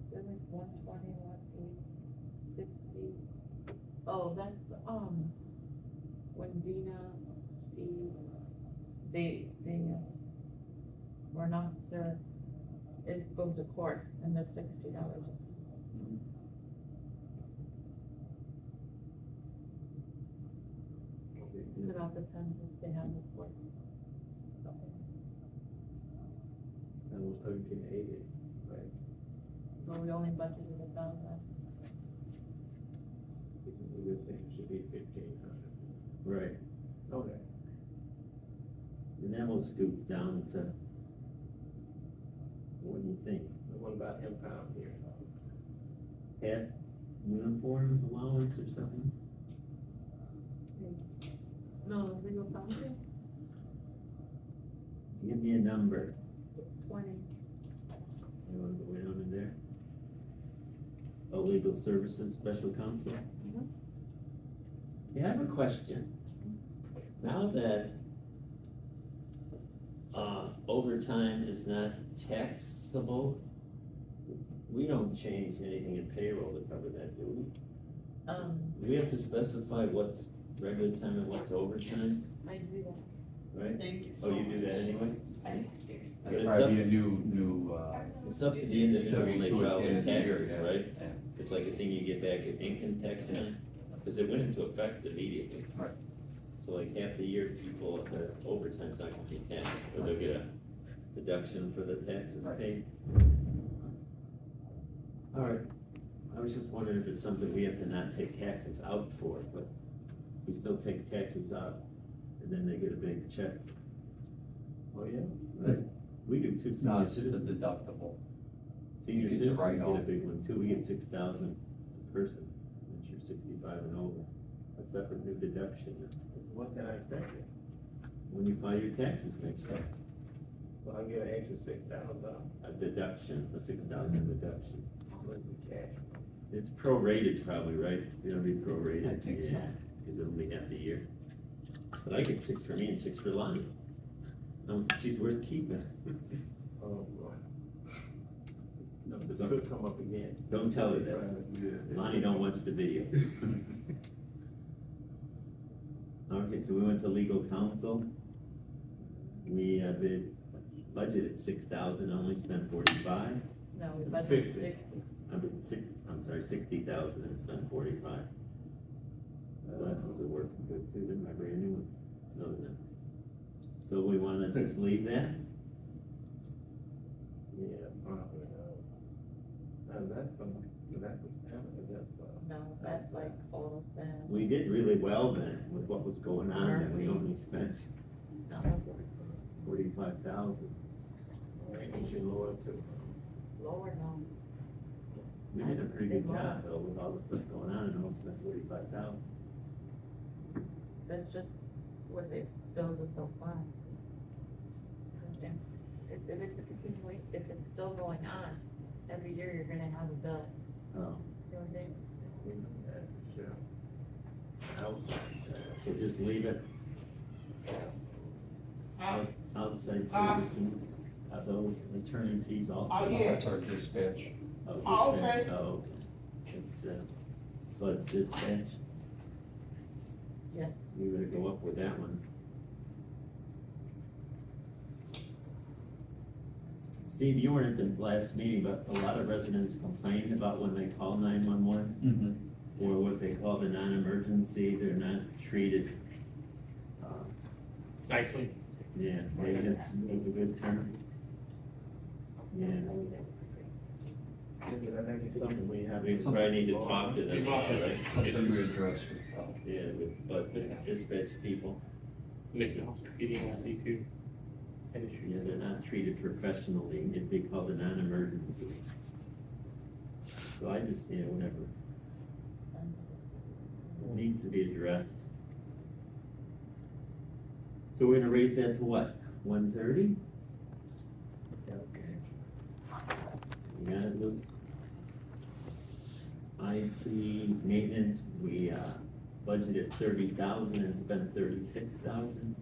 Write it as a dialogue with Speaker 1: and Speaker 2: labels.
Speaker 1: one twenty, one eight, sixty,
Speaker 2: Oh, that's, um,
Speaker 1: when Dina, Steve, they, they uh, were not, sir,
Speaker 2: it goes to court and that's sixty dollars.
Speaker 3: Okay.
Speaker 2: So it all depends if they have the court.
Speaker 3: That was thirteen eighty, right?
Speaker 2: But we only budgeted a thousand.
Speaker 3: It's the same, should be fifteen hundred.
Speaker 4: Right,
Speaker 3: Okay.
Speaker 4: and that will scoop down to, what do you think,
Speaker 3: The one about impound here.
Speaker 4: past uniform allowance or something?
Speaker 2: No, legal counsel,
Speaker 4: Give me a number,
Speaker 2: twenty.
Speaker 4: you wanna go down in there? Oh, legal services, special counsel?
Speaker 2: Mhm.
Speaker 4: Yeah, I have a question. Now that, uh, overtime is not taxable, we don't change anything in payroll to cover that, do we?
Speaker 2: Um,
Speaker 4: Do we have to specify what's regular time and what's overtime,
Speaker 2: I do that.
Speaker 4: right?
Speaker 5: Thank you so
Speaker 4: Oh,
Speaker 5: much.
Speaker 4: you do that anyway? But
Speaker 6: It'd
Speaker 4: It's
Speaker 6: probably
Speaker 4: up,
Speaker 6: be a new, new, uh,
Speaker 4: it's up to the individual when they
Speaker 6: W two
Speaker 4: file
Speaker 6: at the end
Speaker 4: their
Speaker 6: of the year,
Speaker 4: taxes,
Speaker 6: yeah.
Speaker 4: right?
Speaker 6: Yeah.
Speaker 4: It's like a thing you get back at income tax time, because it went into effect immediately.
Speaker 6: Right.
Speaker 4: So like half the year, people, their overtime's not gonna be taxed, or they'll get a deduction for the taxes
Speaker 6: Right.
Speaker 4: paid. All right, I was just wondering if it's something we have to not take taxes out for, but we still take taxes out, and then they get a big check. Oh, yeah? Right, we do too.
Speaker 6: no,
Speaker 4: senior
Speaker 6: it's just a
Speaker 4: citizens.
Speaker 6: deductible.
Speaker 4: Senior
Speaker 6: It's a
Speaker 4: citizens get a
Speaker 6: write-off.
Speaker 4: big one too, we get six thousand per person, once you're sixty-five and over. A separate new deduction,
Speaker 3: What can I expect? it?
Speaker 4: when you file your taxes next year,
Speaker 3: So I get an extra six thousand dollars.
Speaker 4: a deduction, a six thousand deduction.
Speaker 3: cash.
Speaker 4: It's prorated probably, right? It'll be prorated.
Speaker 6: I think so.
Speaker 4: yeah, Cause it'll be half the year. But I get six for me and six for Lonnie. Um, she's worth keeping.
Speaker 3: Oh, boy. No,
Speaker 4: It's
Speaker 3: this
Speaker 4: not-
Speaker 3: could come up again.
Speaker 4: Don't tell her that. Lonnie don't watch the video. Okay, so we went to legal counsel. We have it budgeted six thousand, only spent forty-five.
Speaker 2: No, we budgeted
Speaker 3: Sixty.
Speaker 2: sixty.
Speaker 4: I mean, six, I'm sorry, sixty thousand and spent forty-five. My Glasses are working good too, didn't my brand new one? No, they're not. So we wanna just leave that?
Speaker 3: Yeah, probably, uh, now that's from, that was, that's, uh,
Speaker 2: No, that's like all sand.
Speaker 4: We did really well then with what was going on and we only spent
Speaker 2: No, that's it.
Speaker 4: forty-five thousand.
Speaker 3: thank you, Lord, too.
Speaker 2: Lower now.
Speaker 4: We did a pretty good job though with all the stuff going on and only spent forty-five thousand.
Speaker 2: That's just what they filled us so far. If, if it's a continuation, if it's still going on, every year you're gonna have a bill.
Speaker 4: Oh,
Speaker 2: You know what I mean?
Speaker 3: Yeah, sure. Outside, uh,
Speaker 4: so just leave it
Speaker 5: Uh,
Speaker 4: outside
Speaker 5: Uh,
Speaker 4: services, uh, those attorney fees also.
Speaker 5: Oh, yeah.
Speaker 6: That's our dispatch.
Speaker 4: Oh,
Speaker 5: Oh,
Speaker 4: dispatch, oh, okay. It's, uh, so it's dispatch,
Speaker 2: Yes,
Speaker 4: we better go up with that one. Steve, you weren't at the last meeting, but a lot of residents complained about when they call nine-one-one, or what they call the non-emergency, they're not treated. uh,
Speaker 7: nicely.
Speaker 4: Yeah, maybe that's a good term. Yeah.
Speaker 3: maybe that might be something we have.
Speaker 4: We probably need to talk to them,
Speaker 7: We've also,
Speaker 4: right?
Speaker 6: Something we address with, uh,
Speaker 4: Yeah, with, but the dispatch people,
Speaker 7: McDonald's competing with the two
Speaker 4: yeah,
Speaker 7: industries.
Speaker 4: they're not treated professionally if they call it non-emergency. So I just, you know, whatever,
Speaker 2: and
Speaker 4: it needs to be addressed. So we're gonna raise that to what, one thirty?
Speaker 3: Okay.
Speaker 4: You got it, Luke? IT maintenance, we, uh, budgeted thirty thousand and spent thirty-six thousand.